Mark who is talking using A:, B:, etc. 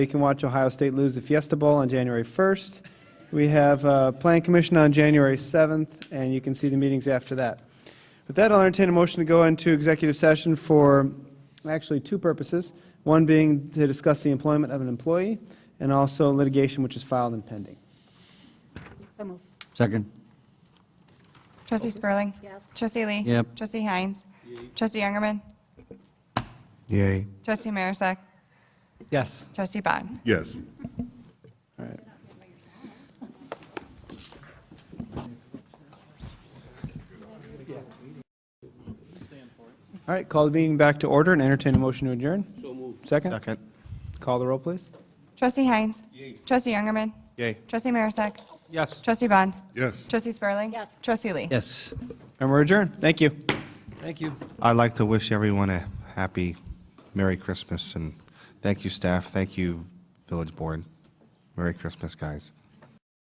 A: We can watch Ohio State lose the Fiesta Bowl on January 1st. We have uh, Plan Commission on January 7th, and you can see the meetings after that. With that, I'll entertain a motion to go into executive session for actually two purposes, one being to discuss the employment of an employee, and also litigation which is filed and pending.
B: So moved.
C: Second.
D: Trustee Spurling.
B: Yes.
D: Trustee Lee.
C: Yep.
D: Trustee Heinz. Trustee Youngerman.
E: Yay.
D: Trustee Marisak.
A: Yes.
D: Trustee Bond.
E: Yes.
A: All right. All right, call the meeting back to order and entertain a motion to adjourn. So moved. Second?
E: Second.
A: Call the roll, please.
D: Trustee Heinz. Trustee Youngerman.
E: Yay.
D: Trustee Marisak.
A: Yes.
D: Trustee Bond.
E: Yes.
D: Trustee Spurling.
B: Yes.
D: Trustee Lee.
C: Yes.
A: And we're adjourned. Thank you. Thank you.
E: I'd like to wish everyone a happy Merry Christmas and thank you, staff. Thank you, Village Board. Merry Christmas, guys.